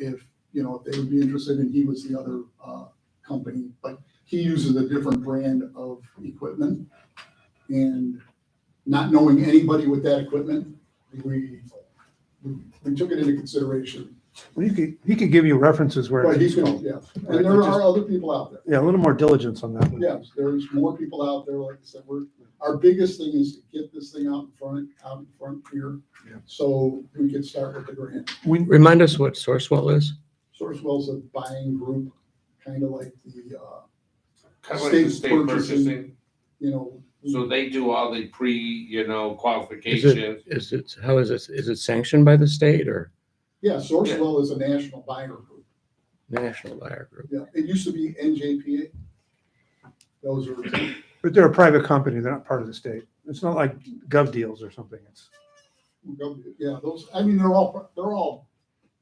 if, you know, if they would be interested and he was the other, uh, company. But he uses a different brand of equipment. And not knowing anybody with that equipment, we, we we took it into consideration. Well, He could, he could give you references where. But it he's is. gonna, yeah. And there are other people out there. Yeah, a little more diligence on that one. Yes, there's more people out there, like I said, we're, our biggest thing is to get this thing out in front, out in front here. Yeah. So we can start with the grant. Remind us what Sourcewell is? Sourcewell's a buying group, kind of like the, uh, Kind of like the State state purchasing. Mm-hmm. purchasing, you know, so they do all the pre, you know, Is it- qualifications. Is it, how is it, is it sanctioned by the state or yeah, Sourcewell is a national buyer group. national buyer group? Yeah, it used to be NJPA. Those are, But they're a private company, they're not part of the state. It's not like gov deals or something. It's, yeah, those, I mean, they're all, they're all,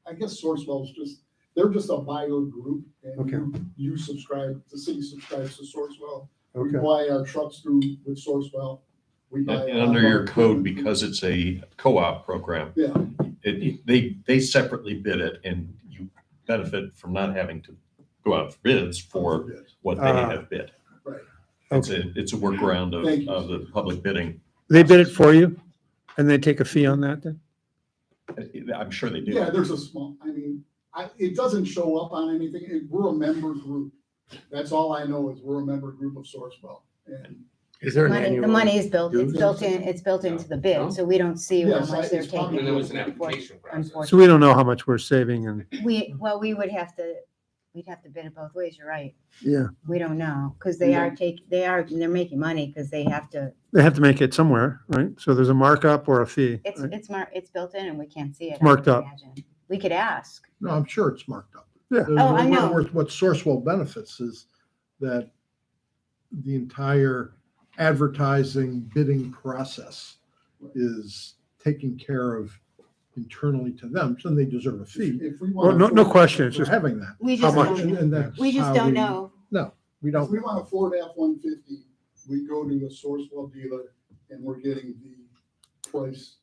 I guess Sourcewell's just, they're just a buyer group. and Okay. you- You subscribe, the city subscribes to Sourcewell. We okay. buy our trucks through with Sourcewell. We buy. And under your code, because it's a co-op program, Yeah, it, they, they separately bid it and you benefit from not having to go out for bids for what they Ah. have bid. Right. It's a, it's a workaround Thank of, you. of the public bidding. They bid it for you and they take a fee on that then? I'm sure they do. yeah, there's a small, I mean, I, it doesn't show up on anything. It- We're a member group. That's all I know is we're a member group of Sourcewell. And Is there an Money, annual? the money is built, it's dues? built in, it's built into the bid, so we don't see how Yes, I- much they're it's probably- And taking. there was an Unfortunately, application process. So we don't know how much we're saving and, We, well, we would have to, we'd have to bid it both ways, you're right. yeah, We don't know, because they are take, they are, they're making money, because they have to, they have to make it somewhere, right? So there's a markup or a fee. it's, right? it's mar, it's built in and we can't see it. It's marked I up. imagine. We could ask. No, I'm sure it's marked up. Yeah. There's- Oh, I know. What what Sourcewell benefits is that the entire advertising bidding process is taken care of internally to them, so they deserve a fee if we Well, want. no, no question. It's for just, having that. We How just much? don't, know. And that's we just how don't know. We If don't, we want a Ford F one fifty, we go to a Sourcewell dealer and we're getting the price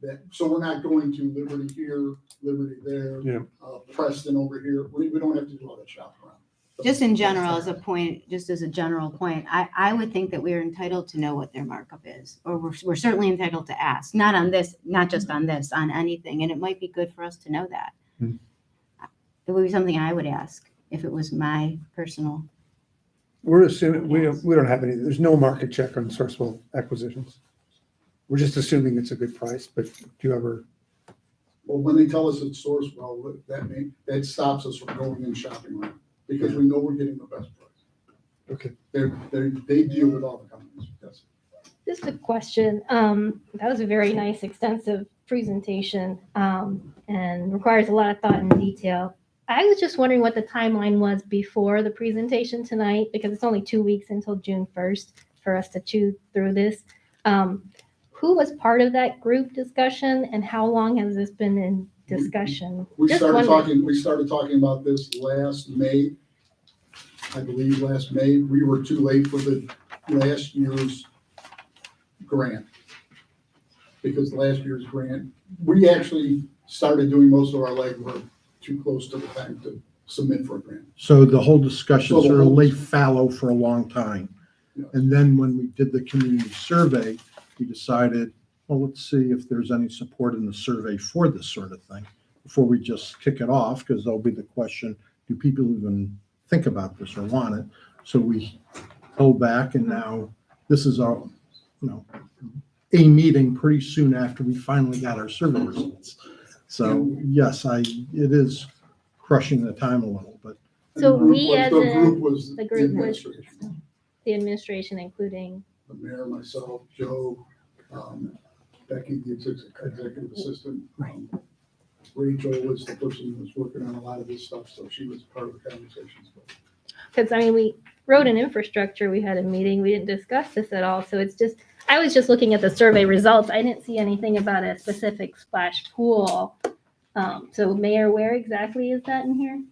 that, so we're not going to Liberty here, Liberty there. Yeah. Uh, Preston over here. We, we don't have to do all that shopping around. Just in general, as a point, just as a general point, I, I would think that we are entitled to know what their markup is, or we're, we're certainly entitled to ask, not on this, not just on this, on anything, and it might be good for us to know that. Hmm. It would be something I would ask if it was my personal, we're assuming, we, don't- we don't have any, there's no market check on Sourcewell acquisitions. We're just assuming it's a good price, but do you ever, Well, when they tell us it's source well, look, that may, that stops us from going and shopping around, because we know we're getting the best price. Okay. They're, they're, they deal with all the companies, yes. Just a question. Um, that was a very nice, extensive presentation, um, and requires a lot of thought and detail. I was just wondering what the timeline was before the presentation tonight, because it's only two weeks until June first for us to chew through this. Um, who was part of that group discussion and how long has this been in discussion? We Just started wondering. talking, we started talking about this last May. I believe last May, we were too late for the last year's grant. Because last year's grant, we actually started doing most of our legwork too close to the time to submit for a grant. so the whole discussion So the sort of whole- lay fallow for a long time. Yeah. And then when we did the community survey, we decided, well, let's see if there's any support in the survey for this sort of thing before we just kick it off, because there'll be the question, do people even think about this or want it? So we held back and now this is our, you know, a meeting pretty soon after we finally got our survey results. So yes, I, it is crushing the time a little, but And So the group we was- as the a- group was the group was- administration. The administration, including the mayor, myself, Joe, um, Becky, the exec- executive assistant. um, Rachel was the person who was working on a lot of this stuff, so she was part of the conversations. Because I mean, we road and infrastructure, we had a meeting, we didn't discuss this at all, so it's just, I was just looking at the survey results, I didn't see anything about a specific splash pool. Um, so Mayor, where exactly is that in here?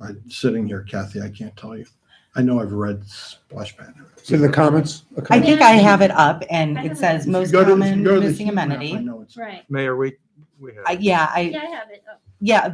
I'm sitting here, Kathy, I can't tell you. I know I've read splash pad. it's in the comments? a I comment? think I have it up and I it have says If you most go to- if you common go to the missing heat map, I amenity. know it's- Right. Mayor, we, we have. I- Yeah, I, Yeah, I have it. Oh. yeah,